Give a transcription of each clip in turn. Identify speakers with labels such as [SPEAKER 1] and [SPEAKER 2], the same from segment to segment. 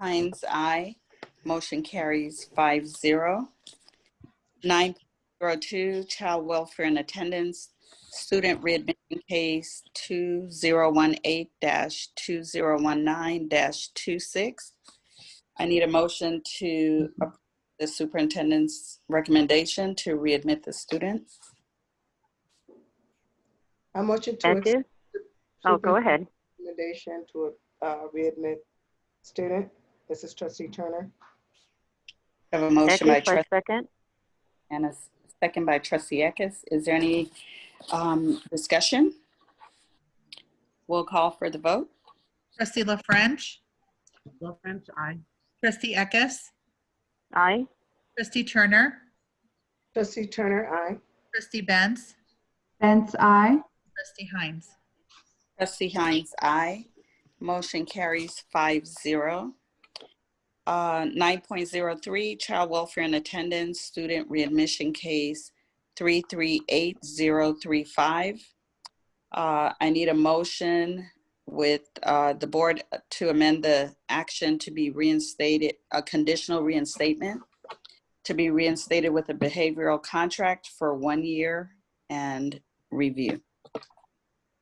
[SPEAKER 1] Hines, aye. Motion carries five zero. Nine zero two, child welfare and attendance, student readmission case two zero one eight dash two zero one nine dash two six. I need a motion to approve the superintendent's recommendation to readmit the student.
[SPEAKER 2] I motion to
[SPEAKER 3] That
[SPEAKER 2] accept
[SPEAKER 3] is, oh, go ahead.
[SPEAKER 2] recommendation to uh, readmit student. This is trustee Turner.
[SPEAKER 1] I Have a
[SPEAKER 3] That
[SPEAKER 1] motion by
[SPEAKER 3] is
[SPEAKER 1] trustee
[SPEAKER 3] my second.
[SPEAKER 1] and a s- second by trustee Eckes. Is there any um, discussion? We'll call for the vote.
[SPEAKER 4] Trustee La French.
[SPEAKER 5] La French, aye.
[SPEAKER 4] Trustee Eckes.
[SPEAKER 3] Aye.
[SPEAKER 4] Trustee Turner.
[SPEAKER 2] Trustee Turner, aye.
[SPEAKER 4] Trustee Benz.
[SPEAKER 6] Benz, I.
[SPEAKER 4] Trustee Hines.
[SPEAKER 1] Trustee Hines, aye. Motion carries five zero. Uh, Nine point zero three, child welfare and attendance, student readmission case three three eight zero three five. Uh, I need a motion with uh, the board to amend the action to be reinstated, a conditional reinstatement, to be reinstated with a behavioral contract for one year and review.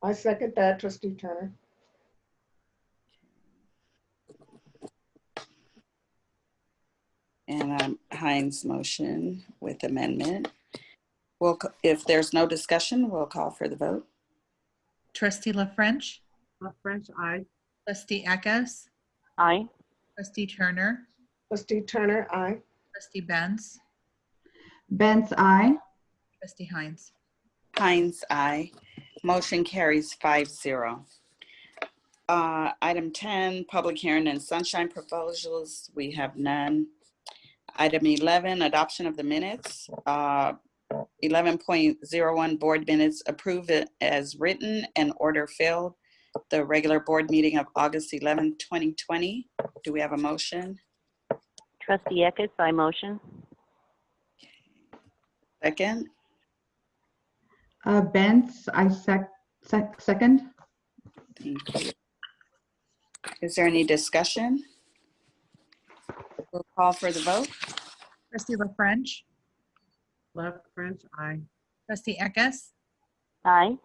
[SPEAKER 2] I second that, trustee Turner.
[SPEAKER 1] And um, Hines' motion with amendment. Well, if there's no discussion, we'll call for the vote.
[SPEAKER 4] Trustee La Uh, French.
[SPEAKER 5] La French, aye.
[SPEAKER 4] Trustee Eckes.
[SPEAKER 3] Aye.
[SPEAKER 4] Trustee Turner.
[SPEAKER 2] Trustee Turner, aye.
[SPEAKER 4] Trustee Benz.
[SPEAKER 6] Benz, I.
[SPEAKER 4] Trustee Hines.
[SPEAKER 1] Hines, aye. Motion carries five zero. Uh, Item 10, public hearing and sunshine proposals. We have none. Item 11, adoption of the minutes. Uh, 11.01, board minutes approved as written and order filled. The regular board meeting of August 11, 2020. Do we have a motion?
[SPEAKER 3] Trustee Eckes, I motion.
[SPEAKER 1] Second,
[SPEAKER 6] Uh, Benz, I sec, sec, second.
[SPEAKER 1] thank you. Is there any discussion? We'll call for the vote.
[SPEAKER 4] Trustee La French.
[SPEAKER 5] La French, aye.
[SPEAKER 4] Trustee Eckes.
[SPEAKER 3] Aye.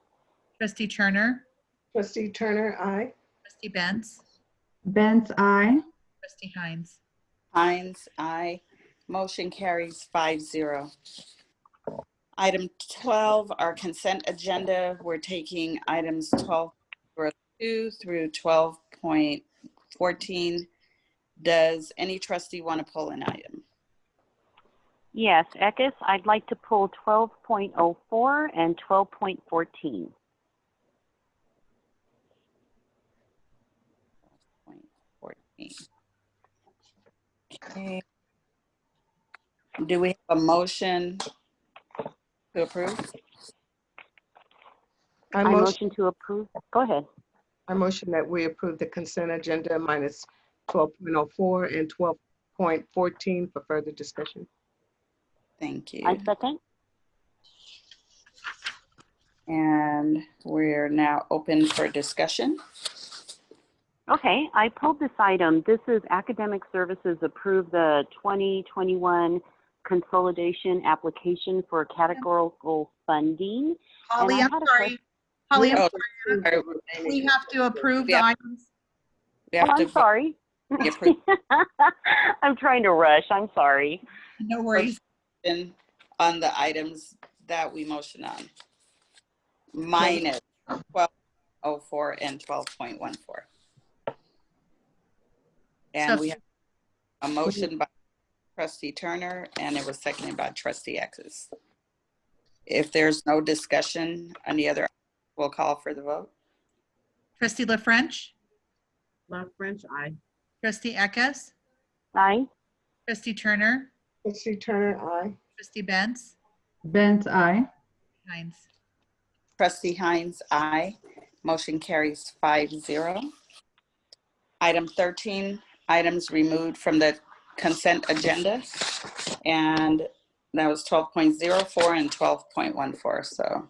[SPEAKER 4] Trustee Turner.
[SPEAKER 2] Trustee Turner, aye.
[SPEAKER 4] Trustee Benz.
[SPEAKER 6] Benz, I.
[SPEAKER 4] Trustee Hines.
[SPEAKER 1] Hines, aye. Motion carries five zero. Item 12, our consent agenda. We're taking items 12.02 through 12.14. Does any trustee want to pull an item?
[SPEAKER 3] Yes, Eckes, I'd like to pull 12.04 and 12.14.
[SPEAKER 1] Point 14. Okay. Do we have a motion to approve?
[SPEAKER 2] I
[SPEAKER 3] I
[SPEAKER 2] motion,
[SPEAKER 3] motion to approve. Go ahead.
[SPEAKER 2] I motion that we approve the consent agenda minus 12.04 and 12.14 for further discussion.
[SPEAKER 1] Thank you.
[SPEAKER 3] I second.
[SPEAKER 1] And we're now open for discussion.
[SPEAKER 3] Okay, I pulled this item. This is Academic Services approve the 2021 consolidation application for categorical funding.
[SPEAKER 4] Holly,
[SPEAKER 3] I
[SPEAKER 4] I'm
[SPEAKER 3] had a
[SPEAKER 4] sorry. Holly, I'm
[SPEAKER 1] Oh,
[SPEAKER 4] sorry. We have to approve the
[SPEAKER 1] Yeah.
[SPEAKER 4] items.
[SPEAKER 1] We
[SPEAKER 3] Oh,
[SPEAKER 1] have to
[SPEAKER 3] I'm
[SPEAKER 1] vote.
[SPEAKER 3] sorry.
[SPEAKER 1] We approve.
[SPEAKER 3] I'm trying to rush. I'm sorry.
[SPEAKER 4] No worries.
[SPEAKER 1] in on the items that we motion on. Minus twelve oh four and twelve point one four. And we have a motion by trustee Turner and it was seconded by trustee X's. If there's no discussion on the other, we'll call for the vote.
[SPEAKER 4] Trustee La French.
[SPEAKER 5] La French, aye.
[SPEAKER 4] Trustee Eckes.
[SPEAKER 3] Aye.
[SPEAKER 4] Trustee Turner.
[SPEAKER 2] Trustee Turner, aye.
[SPEAKER 4] Trustee Benz.
[SPEAKER 6] Benz, I.
[SPEAKER 4] Hines.
[SPEAKER 1] Trustee Hines, aye. Motion carries five zero. Item 13, items removed from the consent agenda. And that was 12.04 and 12.14, so.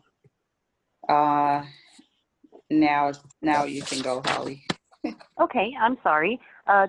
[SPEAKER 1] uh, Now, now you can go, Holly.
[SPEAKER 3] Okay, I'm sorry. Uh,